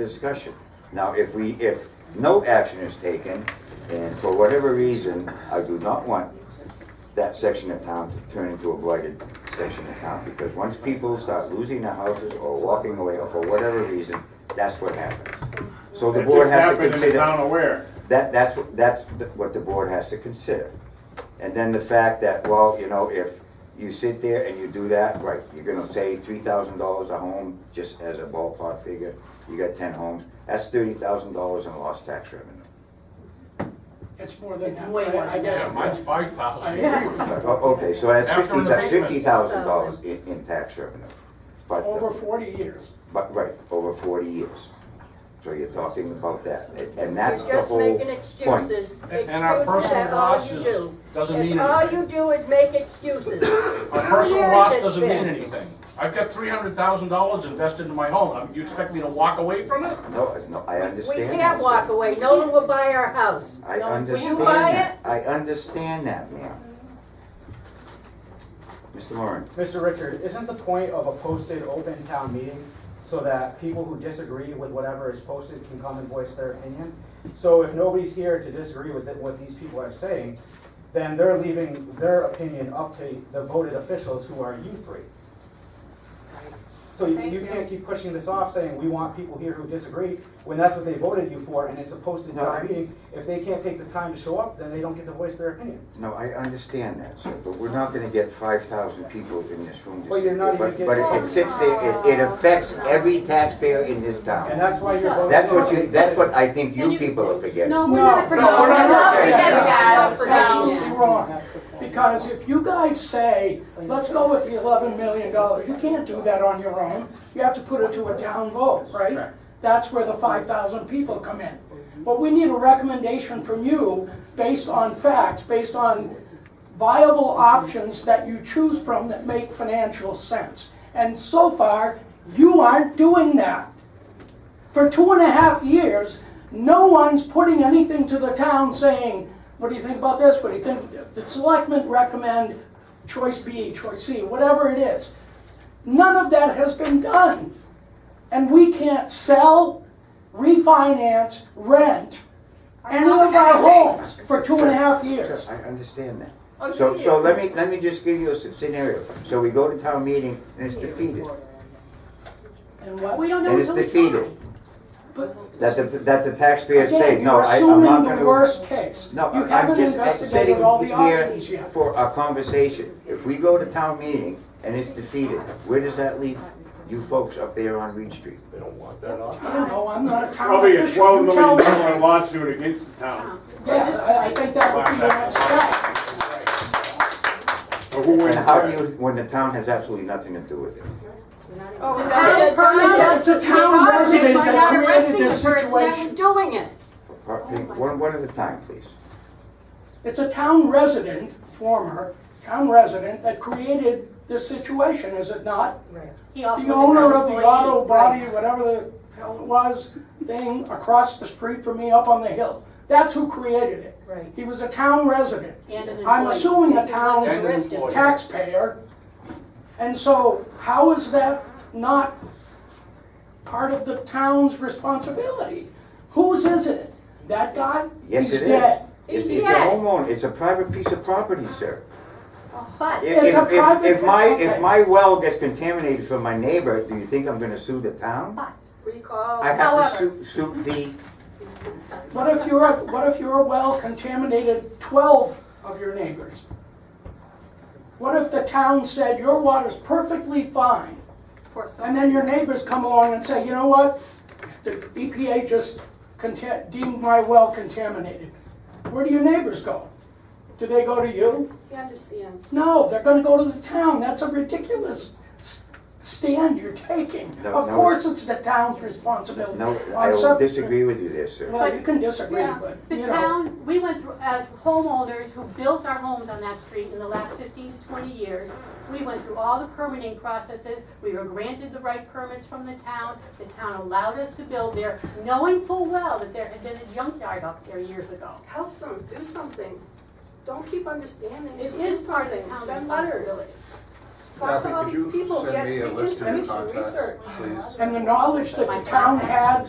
discussion. Now, if we, if no action is taken, and for whatever reason, I do not want that section of town to turn into a blighted section of town, because once people start losing their houses or walking away, or for whatever reason, that's what happens. So the It board just has to happened in the consider. town of Ware. That, that's, what- that's the- what the board has to consider. And then the fact that, well, you know, if you sit there and you do that, right, you're gonna say three thousand dollars a home, just as a ballpark figure, you got ten homes, that's thirty thousand dollars in lost tax revenue. It's more than It's that. way I- more I than guess- Yeah, mine's five I thousand. agree with you. O- Okay, so that's After fifty, the payments. fifty thousand dollars in, in tax revenue. But, the- Over forty years. but, right, over forty years. So you're talking about that, and- and You're that's the just whole making point. excuses. And our Excuses personal are all you losses do. doesn't It's mean all anything. you do is make excuses. Our Two personal years loss it's doesn't mean been. anything. I've got three hundred thousand dollars invested in my home. Um, You expect me to walk away from it? No, no, I We understand. can't that, sir. walk away. No one will buy our house. I Will you understand buy that. I understand that, ma'am. Mr. Moran, Mr. Richard, isn't the point of a posted open town meeting so that people who disagree with whatever is posted can come and voice their opinion? So if nobody's here to disagree with it- what these people are saying, then they're leaving their opinion up to the voted officials who are you three. So you- Thank you you. can't keep pushing this off saying, we want people here who disagree, when that's what they voted you for and it's a posted No, I- town meeting. If they can't take the time to show up, then they don't get to voice their opinion. no, I understand that, sir, but we're not gonna get five thousand people in this room to Well, sit you're not there. But, even but getting- it- it sits there, it, it affects every taxpayer in this And town. that's why you're voting. That's what you, no. that's what I think you people are forgetting. No, we're not forgetting. no, we're not forgetting. Not forgetting. Absolutely wrong. Because if you guys say, let's go with the eleven million dollars, you can't do that on your own. You have to put it to a down vote, right? That's where the five thousand people come in. But we need a recommendation from you based on facts, based on viable options that you choose from that make financial sense. And so far, you aren't doing that. For two and a half years, no one's putting anything to the town saying, what do you think about this? What do you think? The selectmen recommend choice B, choice C, whatever it is. None of that has been done. And we can't sell, refinance, rent any of our homes for two and a half years. I understand that. Oh, So, you so did. let me, let me just give you a s- scenario. So we go to town meeting and it's defeated, And what? We don't know and it's until we try. defeated. But- That the, that the taxpayers say, Again, no, you're I, I'm not assuming gonna. the worst case. No, You I'm haven't just investigated sitting all the options here yet. for a conversation. If we go to town meeting and it's defeated, where does that leave you folks up there on Reed Street? They don't want that I don't know, I'm not a town Probably a official, twelve you million tell me. dollar lawsuit against the Uh-huh. town, Yeah, I- I think that would be the next step. but who wins And how do that? you, when the town has absolutely nothing to do with it? Oh, we got Town it. permit That's a us town to deposit resident by that not created arresting this the person that situation. was Doing it. Pardon- One, one at a time, please. It's a town resident, former town resident, that created this situation, is it not? He also The was a owner town of the employee. auto body, Right. whatever the hell it was, thing across the street from me up on the hill. That's who created it. Right. He was a town resident. And an I'm employee. assuming a town And an employee. taxpayer. And so how is that not part of the town's responsibility? Whose is it? That guy? Yes, He's it is. dead. It's, He's it's a dead. homeowner, it's a private piece of property, sir. But If, It's a if- if, if private- my, okay. if my well gets contaminated from my neighbor, do you think I'm gonna sue the town? Recall. I have to However- sue, sue the, What if your, what if your well contaminated twelve of your neighbors? What if the town said, your water's perfectly fine, For so- and then your neighbors come along and say, you know what? The EPA just conta- deemed my well contaminated. Where do your neighbors go? Do they go to you? He understands. No, they're gonna go to the town, that's a ridiculous s- stand you're taking. No, Of no. course, it's the town's responsibility. no, On I will sep- disagree with you there, sir. Well, you can disagree, but, The you know. town, we went through, as homeowners who built our homes on that street in the last fifteen to twenty years, we went through all the permitting processes, we were granted the right permits from the town, the town allowed us to build there, knowing full well that there had been a junkyard up there years ago. Help them, do something. Don't keep understanding. It Just is do part of the something. town's Send letters. responsibility. Talk to Kathy, all could these you people, send get me a get list of information, contacts, research. please? And the knowledge that the town had